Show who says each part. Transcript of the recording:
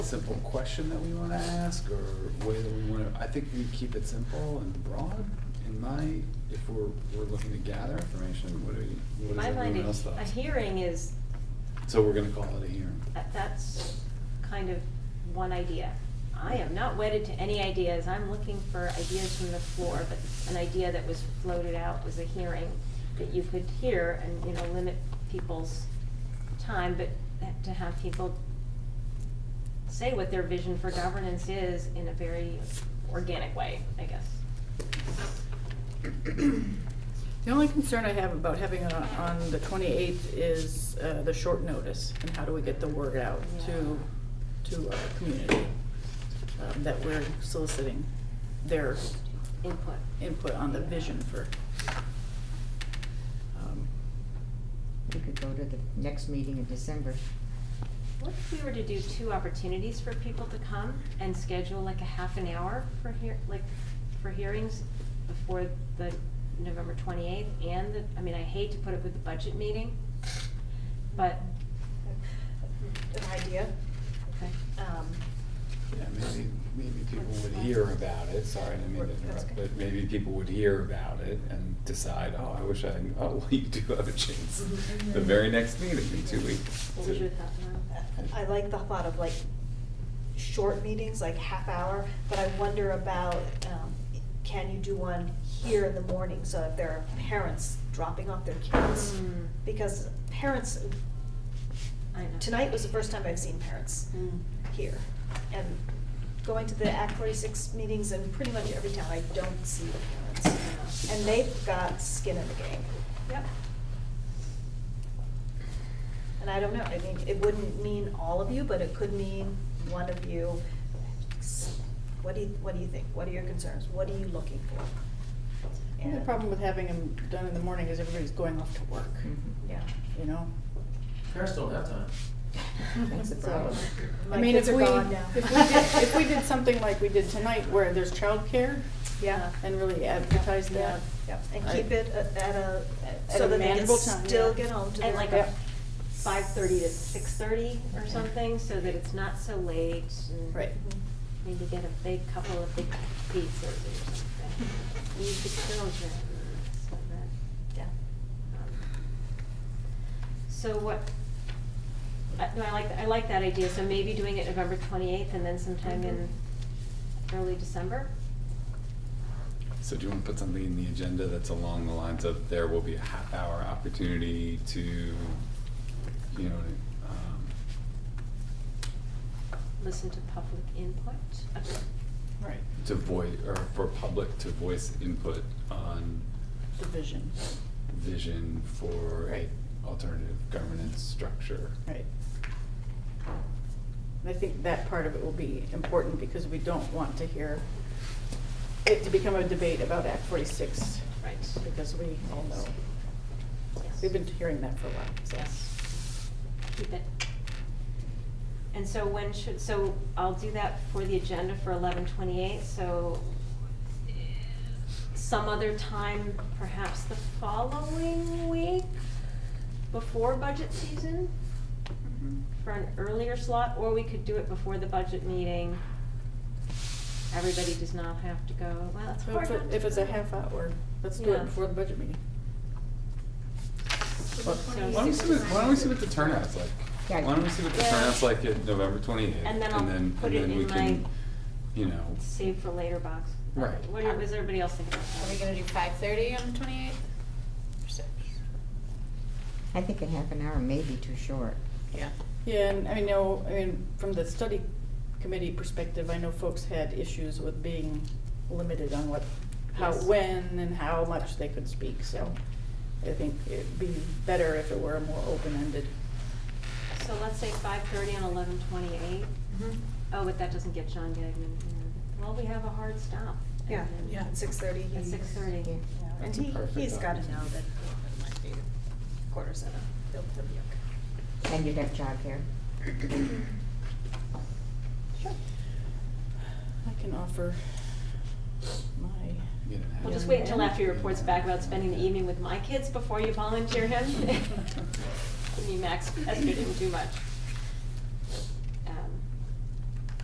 Speaker 1: simple question that we want to ask or way that we want to, I think we keep it simple and broad in my, if we're, we're looking to gather information, what do we, what
Speaker 2: My
Speaker 1: does
Speaker 2: mind,
Speaker 1: everyone else
Speaker 2: is-
Speaker 1: thought?
Speaker 2: a hearing is,
Speaker 1: So we're gonna call it a hearing.
Speaker 2: that- that's kind of one idea. I am not wedded to any ideas, I'm looking for ideas from the floor, but an idea that was floated out was a hearing that you could hear and, you know, limit people's time, but to have people say what their vision for governance is in a very organic way, I guess.
Speaker 3: The only concern I have about having it on- on the 28th is uh, the short notice and how do we get the word out to, to our community um, that we're soliciting their
Speaker 2: Input.
Speaker 3: input on the vision for. um,
Speaker 4: We could go to the next meeting in December.
Speaker 2: What if we were to do two opportunities for people to come and schedule like a half an hour for hear, like, for hearings before the November twenty-eighth and the, I mean, I hate to put it with the budget meeting, but,
Speaker 5: An idea.
Speaker 2: okay.
Speaker 5: Um,
Speaker 1: Yeah, maybe, maybe people would hear about it, sorry, I didn't mean to
Speaker 5: That's
Speaker 1: interrupt,
Speaker 5: good.
Speaker 1: but maybe people would hear about it and decide, oh, I wish I, knew." oh, well, you do have a chance. The very next meeting in two weeks.
Speaker 2: Mm-hmm. What was
Speaker 1: to-
Speaker 2: your thought, Norm?
Speaker 5: I like the thought of like short meetings, like half hour, but I wonder about, um, can you do one here in the morning? So if there are parents dropping off their kids,
Speaker 2: Hmm,
Speaker 5: because parents,
Speaker 2: I know.
Speaker 5: tonight was the first time I've seen parents
Speaker 2: Hmm.
Speaker 5: here. And going to the Act forty-six meetings in pretty much every town, I don't see the parents. And they've got skin in the game.
Speaker 2: Yep.
Speaker 5: And I don't know, I mean, it wouldn't mean all of you, but it could mean one of you. What do you, what do you think? What are your concerns? What are you looking for?
Speaker 3: I think The
Speaker 5: And-
Speaker 3: problem with having them done in the morning is everybody's going off to work,
Speaker 5: Yeah.
Speaker 3: you know?
Speaker 6: Parents don't have time.
Speaker 4: That's the
Speaker 2: Oh.
Speaker 4: problem.
Speaker 5: My
Speaker 3: I mean, if
Speaker 5: kids are
Speaker 3: we,
Speaker 5: gone now.
Speaker 3: if we did, if we did something like we did tonight where there's childcare
Speaker 5: Yeah.
Speaker 3: and really advertise
Speaker 5: Yeah,
Speaker 3: that,
Speaker 5: yeah, and
Speaker 3: I-
Speaker 5: keep it at at a,
Speaker 3: At
Speaker 5: so
Speaker 3: a
Speaker 5: that they can
Speaker 3: manageable time,
Speaker 5: still
Speaker 3: yeah.
Speaker 5: get home to
Speaker 2: And
Speaker 5: their-
Speaker 2: like
Speaker 3: Yep.
Speaker 2: a five-thirty to six-thirty or something, so that it's not so late and.
Speaker 3: right.
Speaker 2: Maybe get a big couple of big pizzas or something. Use the children so that.
Speaker 5: Yeah.
Speaker 2: um, So what, I, no, I like, I like that idea, so maybe doing it November twenty-eighth and then sometime in early December?
Speaker 1: So do you want to put something in the agenda that's along the lines of there will be a half hour opportunity to, you know, um,
Speaker 2: Listen to public input?
Speaker 3: Right,
Speaker 1: to voice, or for public to voice input on
Speaker 3: the vision,
Speaker 1: vision for a
Speaker 3: Right.
Speaker 1: alternative governance structure?
Speaker 3: right. And I think that part of it will be important because we don't want to hear it to become a debate about Act forty-six
Speaker 2: Right.
Speaker 3: because we all know,
Speaker 2: Yes.
Speaker 3: we've been hearing that for a while, so.
Speaker 2: Yes. Keep it. And so when should, so I'll do that for the agenda for eleven twenty-eight, so eh, some other time, perhaps the following week, before budget season, for an earlier slot, or we could do it before the budget meeting. Everybody does not have to go, well, it's
Speaker 3: So
Speaker 2: hard
Speaker 3: if
Speaker 2: not
Speaker 3: it-
Speaker 2: to
Speaker 3: if it's a
Speaker 2: go.
Speaker 3: half hour, let's do it
Speaker 2: Yeah.
Speaker 3: before the budget meeting.
Speaker 2: Well,
Speaker 1: Why don't we see what, why don't we see what the turnout's like? Why
Speaker 4: Yeah.
Speaker 1: don't we see what the
Speaker 2: Yeah.
Speaker 1: turnout's like at November twenty-eighth?
Speaker 2: And then I'll put it
Speaker 1: And then we
Speaker 2: in
Speaker 1: can,
Speaker 2: my-
Speaker 1: you know,
Speaker 2: Save for later box.
Speaker 1: Right.
Speaker 2: What do- what does everybody else think about that?
Speaker 7: Are we gonna do five thirty on the twenty-eighth? Or six?
Speaker 4: I think a half an hour may be too short.
Speaker 7: Yeah.
Speaker 3: Yeah, and I mean, no, I mean, from the study committee perspective, I know folks had issues with being limited on what, how,
Speaker 2: Yes.
Speaker 3: when and how much they could speak, so I think it'd be better if it were more open-ended.
Speaker 2: So let's say five thirty and eleven twenty-eight. Oh, but that doesn't get John Gagnon. in. Well, we have a hard stop. And
Speaker 5: Yeah,
Speaker 2: then
Speaker 7: Yeah.
Speaker 5: at six thirty.
Speaker 2: At six thirty.
Speaker 4: Yeah.
Speaker 5: And
Speaker 1: That's a
Speaker 5: he,
Speaker 1: perfect
Speaker 5: he's gotta know
Speaker 1: opportunity.
Speaker 5: that it might be quarter seven, he'll, he'll be okay.
Speaker 4: And you'd have childcare.
Speaker 3: I can offer my,
Speaker 1: you know.
Speaker 2: We'll just
Speaker 3: Yeah.
Speaker 2: wait until after he reports back about spending the evening with my kids before you volunteer him. Me, Max Esther didn't do much. Um,